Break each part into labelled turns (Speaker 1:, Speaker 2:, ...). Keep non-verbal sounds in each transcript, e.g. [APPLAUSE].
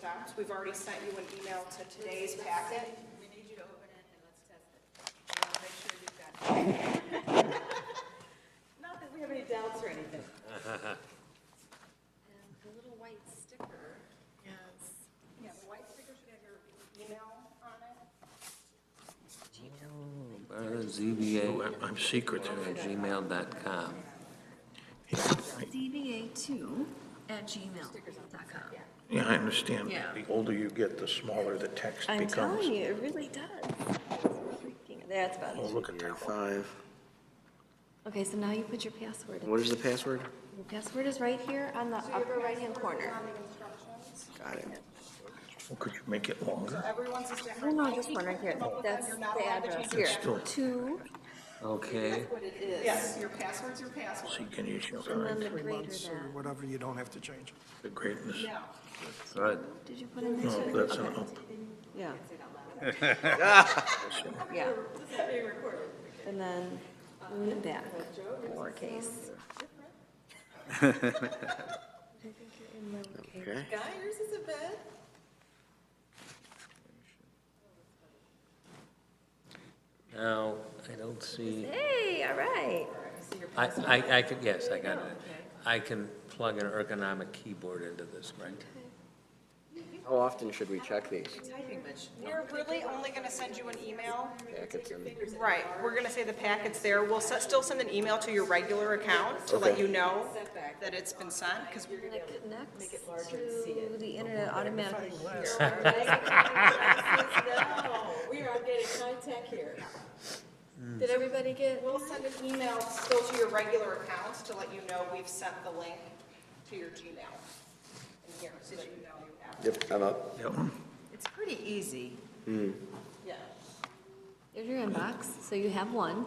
Speaker 1: jobs. We've already sent you an email to today's packet.
Speaker 2: We need you to open it and let's test it. I want to make sure you've got it. Not that we have any doubts or anything.
Speaker 3: And the little white sticker has
Speaker 2: Yeah, the white sticker should have your email on it.
Speaker 4: Uh, ZBA
Speaker 5: I'm- I'm secret.
Speaker 4: at gmail.com.
Speaker 3: zba2@gmail.com.
Speaker 5: Yeah, I understand.
Speaker 3: Yeah.
Speaker 5: The older you get, the smaller the text
Speaker 6: I'm telling
Speaker 5: becomes.
Speaker 6: you, it really does. Freaking- That's better.
Speaker 5: Oh, look at that.
Speaker 7: Five.
Speaker 6: Okay, so now you put your password. in.
Speaker 7: What is the password?
Speaker 6: Your password is right here on the upper right-hand corner.
Speaker 7: Got it.
Speaker 5: Well, Could you make it longer?
Speaker 1: Everyone's is
Speaker 6: No,
Speaker 1: different.
Speaker 6: Oh, no, just one right here. That's the address here.
Speaker 5: Still.
Speaker 6: Two,
Speaker 4: Okay,
Speaker 1: Yes, your password's your password.
Speaker 5: So you can use your,
Speaker 6: and then the
Speaker 5: eyes.
Speaker 6: greater
Speaker 8: months or
Speaker 6: than.
Speaker 8: whatever, you don't have to change it.
Speaker 5: the greatness.
Speaker 1: No.
Speaker 4: good.
Speaker 6: Did you put in this
Speaker 5: No,
Speaker 6: one?
Speaker 5: that's an
Speaker 6: Okay.
Speaker 5: up.
Speaker 6: Yeah. [LAUGHS] Yeah. And then in the back,
Speaker 7: [LAUGHS]
Speaker 6: lowercase. I think you're in lowercase.
Speaker 7: Okay.
Speaker 2: Guy, yours is a bit.
Speaker 4: Now, I don't see,
Speaker 6: Hey, all right.
Speaker 4: I, I, I could, yes, I got it. I can plug an ergonomic keyboard into this, right?
Speaker 7: How often should we check these?
Speaker 2: Typing much.
Speaker 1: We're really only gonna send you an email.
Speaker 7: Packets and-
Speaker 1: Right, we're gonna say the packet's there. We'll se- still send an email to your regular account to let you know that it's been sent, because we're
Speaker 6: And it connects to the internet automatically here.
Speaker 3: [LAUGHS]
Speaker 2: We are getting high tech here.
Speaker 6: Did everybody get?
Speaker 1: We'll send an email still to your regular accounts to let you know we've sent the link to your Gmail in here, so that you know you have. it.
Speaker 7: Yep, I'm up.
Speaker 5: That one?
Speaker 2: It's pretty easy.
Speaker 1: Yeah.
Speaker 6: There's your inbox, so you have one.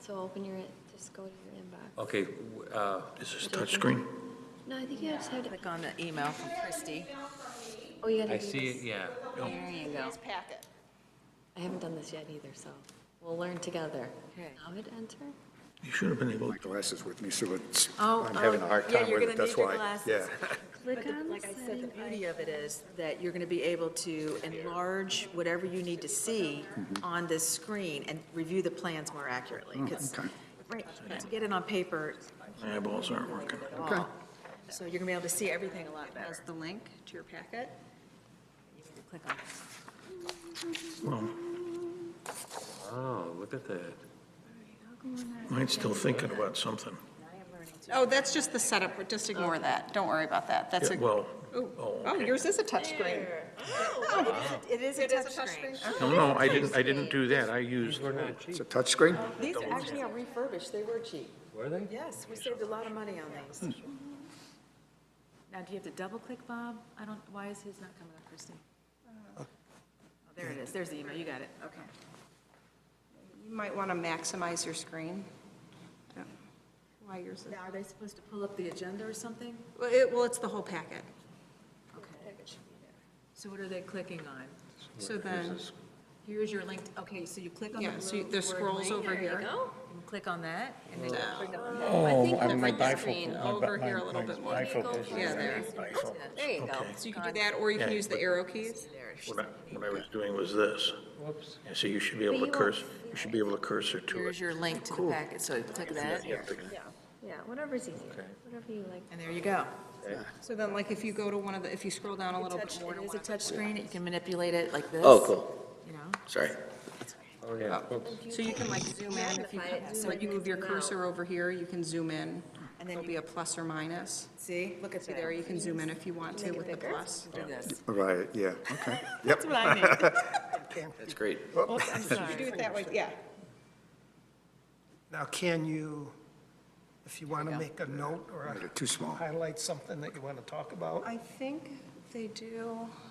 Speaker 6: So open your, just go to your inbox.
Speaker 4: Okay, w- uh,
Speaker 5: Is this touchscreen?
Speaker 6: No, I think you just have to,
Speaker 3: Click on the email from Christie.
Speaker 6: oh, you gotta
Speaker 4: I
Speaker 6: do
Speaker 4: see it,
Speaker 6: this.
Speaker 4: yeah.
Speaker 3: There you go.
Speaker 1: Today's packet.
Speaker 6: I haven't done this yet either, so we'll learn together.
Speaker 3: Okay.
Speaker 6: Now hit enter.
Speaker 5: You should have been able,
Speaker 8: My glasses with me, so it's,
Speaker 3: Oh,
Speaker 8: I'm having
Speaker 3: oh,
Speaker 8: a hard
Speaker 3: yeah,
Speaker 8: time
Speaker 3: you're
Speaker 8: with it,
Speaker 3: gonna
Speaker 8: that's
Speaker 3: need your
Speaker 8: why.
Speaker 3: glasses.
Speaker 8: Yeah.
Speaker 6: Click
Speaker 3: But the-
Speaker 6: on
Speaker 3: like I said, the
Speaker 6: setting
Speaker 3: beauty of it is that you're going to be able to enlarge whatever you need to see
Speaker 8: Mm-hmm.
Speaker 3: on this screen and review the plans more accurately. 'cause-
Speaker 8: Oh, okay.
Speaker 3: Right, to get it on paper,
Speaker 5: my eyeballs aren't working.
Speaker 3: at all. So you're going to be able to see everything a lot better.
Speaker 2: Has the link to your packet.
Speaker 3: Click on it.
Speaker 5: Well,
Speaker 4: Oh, look at that.
Speaker 5: mine's still thinking about something.
Speaker 1: Oh, that's just the setup, just ignore that. Don't worry about that. That's
Speaker 5: Yeah,
Speaker 1: a.
Speaker 5: Well,
Speaker 1: Ooh.
Speaker 5: oh,
Speaker 1: Oh,
Speaker 5: okay.
Speaker 1: yours is a touchscreen.
Speaker 3: Oh, It is a
Speaker 1: It is a
Speaker 3: touchscreen.
Speaker 1: touchscreen.
Speaker 5: no, no, I didn't, I didn't do that. I used,
Speaker 8: It's a touchscreen?
Speaker 3: These actually are refurbished, they were cheap.
Speaker 4: Were they? Hmm.
Speaker 3: Yes, we saved a lot of money on these. Now, do you have to double-click, Bob? I don't, why is his not coming up, Christie?
Speaker 9: Uh,
Speaker 3: Oh, There it is, there's the email, you got it, okay.
Speaker 1: You might want to maximize your screen. I don't know Why yours is.
Speaker 3: Now, are they supposed to pull up the agenda or something?
Speaker 1: Well, it, well, it's the whole packet.
Speaker 3: Okay. So what are they clicking on?
Speaker 1: So then,
Speaker 3: Here's your link, okay, so you click on the
Speaker 1: Yeah, so you-
Speaker 3: blue
Speaker 1: there's
Speaker 3: word
Speaker 1: scrolls
Speaker 3: link.
Speaker 1: over
Speaker 3: There you
Speaker 1: here.
Speaker 3: go. And click on that, and then you bring up the-
Speaker 5: oh,
Speaker 6: think
Speaker 5: I-
Speaker 6: the
Speaker 5: my
Speaker 6: big screen
Speaker 5: bifocals. my bi-
Speaker 1: over here a
Speaker 5: my-
Speaker 1: little
Speaker 5: my
Speaker 1: bit more. There
Speaker 6: you go.
Speaker 5: bifocals.
Speaker 6: Yeah, there.
Speaker 5: Bifocals.
Speaker 6: There you go.
Speaker 5: Okay.
Speaker 1: so you can do that, or you can use the arrow keys.
Speaker 5: What I, what I was doing was this.
Speaker 4: Whoops.
Speaker 5: You see, you should be able to
Speaker 6: But you won't
Speaker 5: cursor, you should be able to cursor to
Speaker 3: Here's
Speaker 5: it.
Speaker 3: your link to the packet, so click that,
Speaker 5: You have to-
Speaker 6: Yeah, whatever's easier, whatever you like.
Speaker 3: and there you go.
Speaker 1: So then, like, if you go to one of the, if you scroll down a little bit
Speaker 3: Touch-
Speaker 1: more
Speaker 3: It
Speaker 1: to
Speaker 3: is
Speaker 1: one
Speaker 3: a
Speaker 1: of the-
Speaker 3: touchscreen, you can manipulate it like this.
Speaker 7: Oh, cool.
Speaker 3: You know?
Speaker 7: Sorry.
Speaker 4: Oh, yeah. Whoops.
Speaker 1: So you can like zoom in if you,
Speaker 6: Magnify it,
Speaker 1: so
Speaker 6: zoom
Speaker 1: like you
Speaker 6: in,
Speaker 1: move your
Speaker 6: zoom out.
Speaker 1: cursor over here, you can zoom in.
Speaker 3: And then
Speaker 1: There'll
Speaker 3: you-
Speaker 1: be a plus or minus.
Speaker 3: See, look at
Speaker 1: See there, you can zoom in if you want to with the plus.
Speaker 3: Do this.
Speaker 8: Right, yeah, okay. Yep,
Speaker 3: what I need.
Speaker 7: That's great.
Speaker 3: I'm sorry.
Speaker 1: Do it that way, yeah.
Speaker 9: Now, can you, if you want to make a note or
Speaker 8: Make it too small.
Speaker 9: highlight something that you want to talk about?
Speaker 1: I think they do.